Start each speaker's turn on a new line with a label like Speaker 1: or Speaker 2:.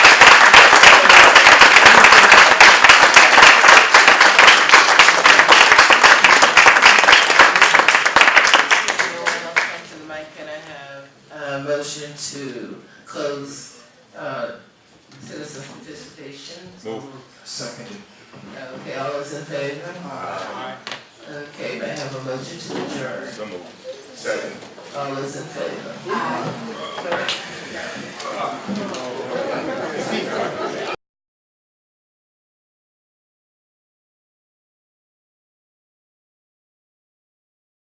Speaker 1: uh, motion to close, uh, citizen participation?
Speaker 2: Move.
Speaker 3: Seconded.
Speaker 1: Okay, all those in favor?
Speaker 3: Aye.
Speaker 1: Okay, may I have a motion to adjourn?
Speaker 2: So moved. Second.
Speaker 1: All those in favor?